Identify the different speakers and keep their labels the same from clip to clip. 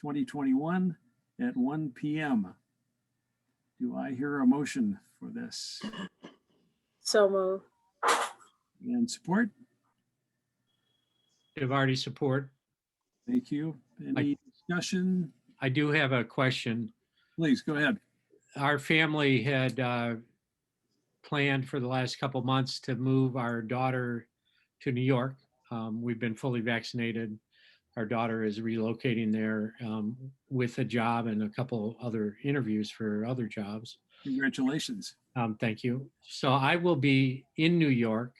Speaker 1: 2021 at 1 PM. Do I hear a motion for this
Speaker 2: So move.
Speaker 1: and support?
Speaker 3: Divardi support.
Speaker 1: Thank you. Any discussion?
Speaker 3: I do have a question.
Speaker 1: Please go ahead.
Speaker 3: Our family had uh, planned for the last couple months to move our daughter to New York. Um, We've been fully vaccinated. Our daughter is relocating there um, with a job and a couple other interviews for other jobs.
Speaker 1: Congratulations.
Speaker 3: Um, Thank you. So I will be in New York,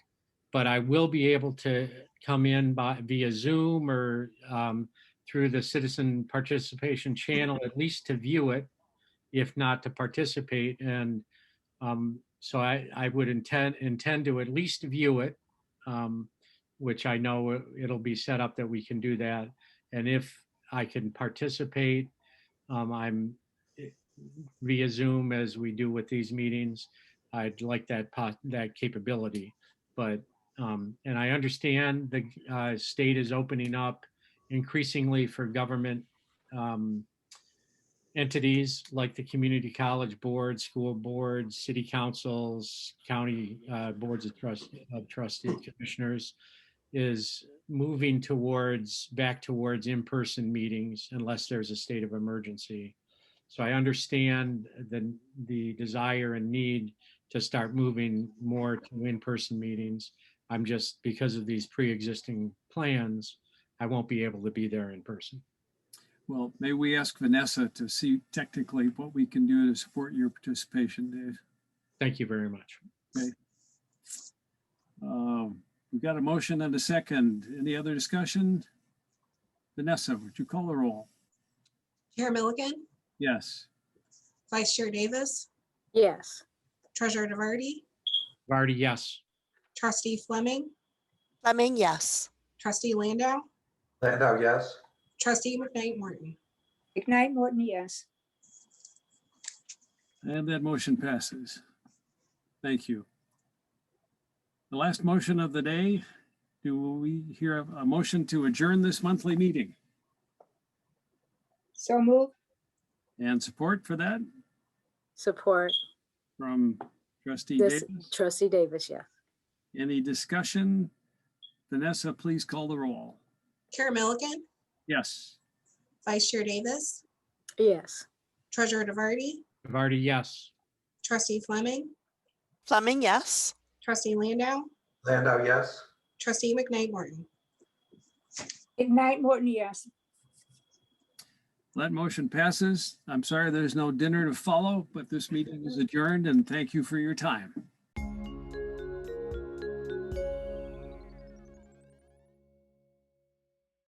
Speaker 3: but I will be able to come in by via Zoom or um, through the citizen participation channel, at least to view it, if not to participate. And um, so I, I would intend, intend to at least view it, um, which I know it- it'll be set up that we can do that. And if I can participate, um, I'm eh, via Zoom as we do with these meetings. I'd like that pot, that capability, but, um, and I understand the, uh, state is opening up increasingly for government, um, entities like the community college board, school boards, city councils, county, uh, boards of trust, of trustee commissioners is moving towards, back towards in-person meetings unless there's a state of emergency. So I understand the, the desire and need to start moving more to in-person meetings. I'm just, because of these pre-existing plans, I won't be able to be there in person.
Speaker 1: Well, may we ask Vanessa to see technically what we can do to support your participation, Dave?
Speaker 3: Thank you very much.
Speaker 1: Um, We've got a motion and a second. Any other discussion? Vanessa, would you call the roll?
Speaker 4: Chair Milligan,
Speaker 1: Yes.
Speaker 4: Vice Chair Davis,
Speaker 2: Yes.
Speaker 4: Treasurer DeVarty,
Speaker 3: Vardy, yes.
Speaker 4: Trustee Fleming,
Speaker 5: Fleming, yes.
Speaker 4: Trustee Landau,
Speaker 6: Landau, yes.
Speaker 4: Trustee McKnight Morton.
Speaker 2: McKnight Morton, yes.
Speaker 1: And that motion passes. Thank you. The last motion of the day, do we hear a a motion to adjourn this monthly meeting?
Speaker 2: So move.
Speaker 1: And support for that
Speaker 2: Support.
Speaker 1: from trustee
Speaker 2: This,
Speaker 1: Davis?
Speaker 2: trustee Davis, yes.
Speaker 1: Any discussion? Vanessa, please call the roll.
Speaker 4: Chair Milligan,
Speaker 1: Yes.
Speaker 4: Vice Chair Davis,
Speaker 2: Yes.
Speaker 4: Treasurer DeVarty,
Speaker 3: Vardy, yes.
Speaker 4: Trustee Fleming,
Speaker 5: Fleming, yes.
Speaker 4: Trustee Landau,
Speaker 6: Landau, yes.
Speaker 4: Trustee McKnight Morton.
Speaker 7: Ignite Morton, yes.
Speaker 1: That motion passes. I'm sorry there's no dinner to follow, but this meeting is adjourned and thank you for your time.